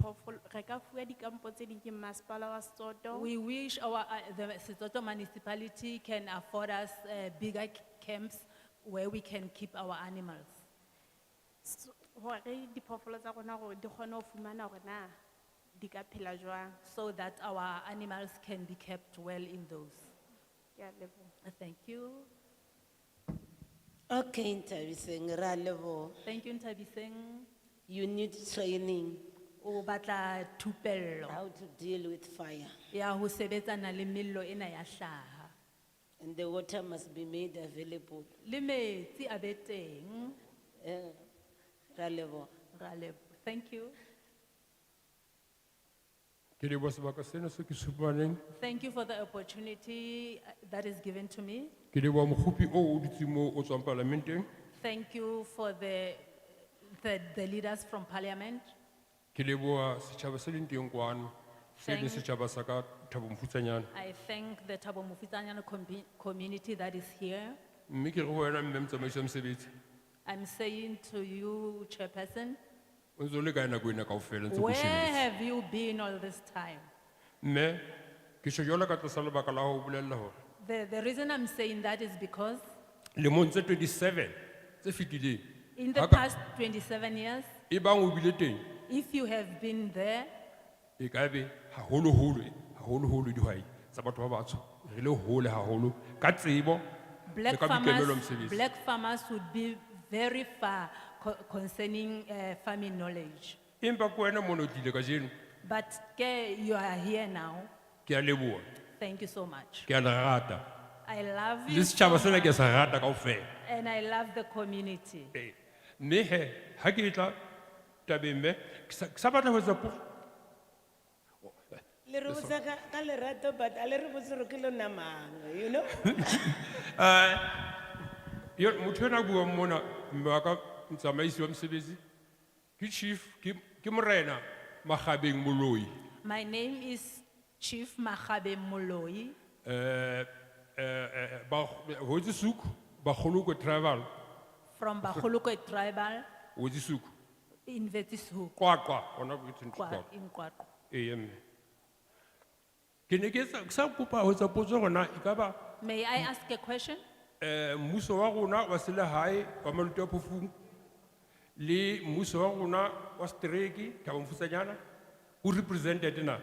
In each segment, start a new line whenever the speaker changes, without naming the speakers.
pol- re ka fuwa dikampo tse ding ke masepala wa Soto.
We wish our, uh, the Sisoto municipality can afford us uh, bigger c- camps where we can keep our animals.
S- Hore diphoofolo tsa rona hore di kgone ho fumana hore na di ka phela jwang.
so that our animals can be kept well in those.
Ke a leboha.
Thank you.
Okay, Ntabiseng, ra leboha.
Thank you Ntabiseng.
You need training
O batla thupello
how to deal with fire.
ya ho sebetsana le mello ena ya hlaha.
And the water must be made available.
Le metsi a be teng.
Eh, ra leboha.
Ra lebo- Thank you.
Ke leboha sebaka sena seo ke se fumaneng.
Thank you for the opportunity uh, that is given to me.
Ke leboha mokopi oo o dutseng moo o tswang parlamenteng.
Thank you for the, the, the leaders from parliament.
Ke leboha setjhaba se leng teng kwano, se leng
Thank-
setjhaba sa ka Thabo Mofutshanyane.
I thank the Thabo Mofutanyana commu- community that is here.
Mme ke re ho wena mme motsamaiso wa mosebetsi,
I'm saying to you, Chairperson,
o ntso le kae nako ena kaofela ntse ke o
Where
shebetse?
have you been all this time?
Mme, ke tjho jwalo ka tlasa lebaka la ho bolella hore,
The, the reason I'm saying that is because
lemong tse 27 tse fetileng,
in the
ha ka-
past 27 years,
ebang o bile teng,
if you have been there,
e ka be haholoholo- haholoholo dihwai tsa batho ba batsho, re le hole haholo ka tsebo le
black
ka boikarabelo
farmers,
mosebetsi.
black farmers would be very far co- concerning uh, farming knowledge.
empa ke wena mona o tlile kajeno
But ke- you are here now.
ke a leboha
Thank you so much.
ke a le rata
I love
le
you
setjhaba sena ke sa rata kaofela
and I love the community.
Ee. mme he ha ke tla tabeng mme ke sa- ke sa batla ho etsa po
Le re botsa ka ka lerato but a le re botse hore ke lona mang, you know?
Yo- motho ena a buang mona mme wa ka motsamaisi wa mosebetsi ke chief ke ke morena makgabeng moloi
My name is Chief Machabe Moloi.
Eh, eh, eh, Ba- hotse suku bakgoloko travel
from Bahuluko tribal
hotse suku
in Vetisuku,
qwaqwa ona ke thentse e qwaqwa
in Kwaku.
ee mme ke ne ke sa- ke sa kopa ho etsa potso rona e ka ba
May I ask a question?
Eh, mmuso wa rona wa selehae wa maluti a phofung le mmuso wa rona wa setereke thabo mfusanyana o represented na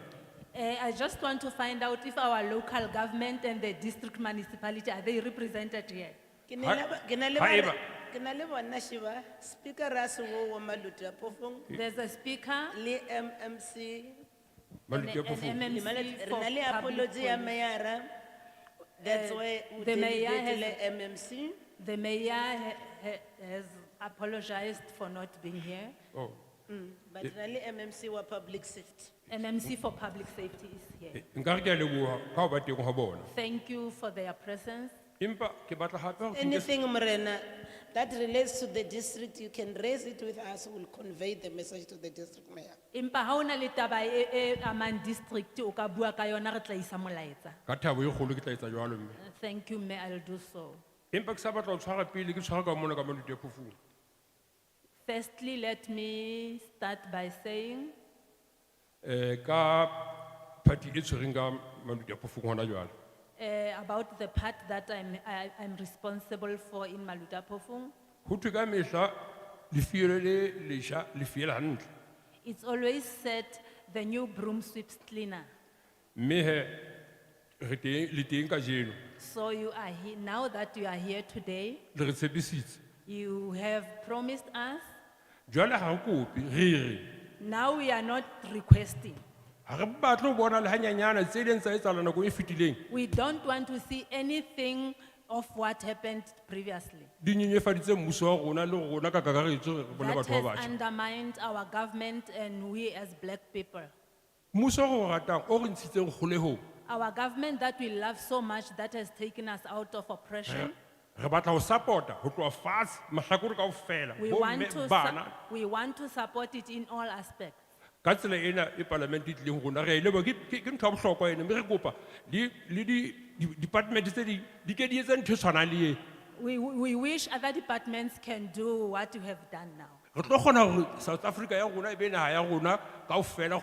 Eh, I just want to find out if our local government and the district municipality, are they represented here?
Ke na le ba- ke na le ba-
Haeba.
ke na le bona Shiva, Speaker Rasu wa Maluti Apofong,
There's a speaker,
le MMC,
an
maluti a
le
phofung
MMC
mala- re na le
for public
apology ya
policy.
mayor-a. That's why we
the mayor
delegate
has-
le MMC.
The mayor ha- ha- has apologized for not being here.
Oh,
Mm, But re na le MMC wa Public Safety.
MMC for public safety is here.
eh, nkare ke a leboha ka ho ba teng ha bona
Thank you for their presence.
empa ke batla hape hore ke nke se-
Anything, Morena, that relates to the district, you can raise it with us, we'll convey the message to the district mayor.
Impa haona le taba e, e amang district, o ka bua ka yona, re tla isa molaetsa.
ka thabo e kgolo ke tla etsa jwalo mme
Thank you, Mayor, I'll do so.
empa ke sa batla ho tshwara pele ke tshwara ka mona ka maluti a phofung
Firstly, let me start by saying
um ka party e tshwereng ka maluti a phofung hona jwale
eh, about the part that I'm, I- I'm responsible for in Malutapofung.
ho thwe ka mehla lefiele le lesha le fiele hantle
It's always said the new broom sweeps cleaner.
mme he re teng le teng kajeno
So you are here, now that you are here today,
le re tshepisitse
you have promised us.
jwale ha re kope re re
Now we are not requesting.
ha re batle ho bona le hanyanyana tse leng tsa etsahala nako e fetileng
We don't want to see anything of what happened previously.
di nyenyefaditse mmuso wa rona le rona ka kakaretso re bone
That
batho
has
ba batjha
undermined our government and we as black people.
mmuso o re ratang o re ntshitseng kgolehong
Our government that we love so much that has taken us out of oppression.
re batla ho support-a ho tloha fatshe mahlakore kaofela
We
bomme
want to, su-
bana
we want to support it in all aspects.
ka tsela ena e palamente e tlileng ho rona re a e leboha. Ke- ke ke ntho ya bohlokwa ena mme re kopa le le di- di- department tse ding di ke di etse ntho e tshwanang le ena
We, we wish other departments can do what you have done now.
re tlo kgona hore south africa ya rona e be naha ya rona kaofela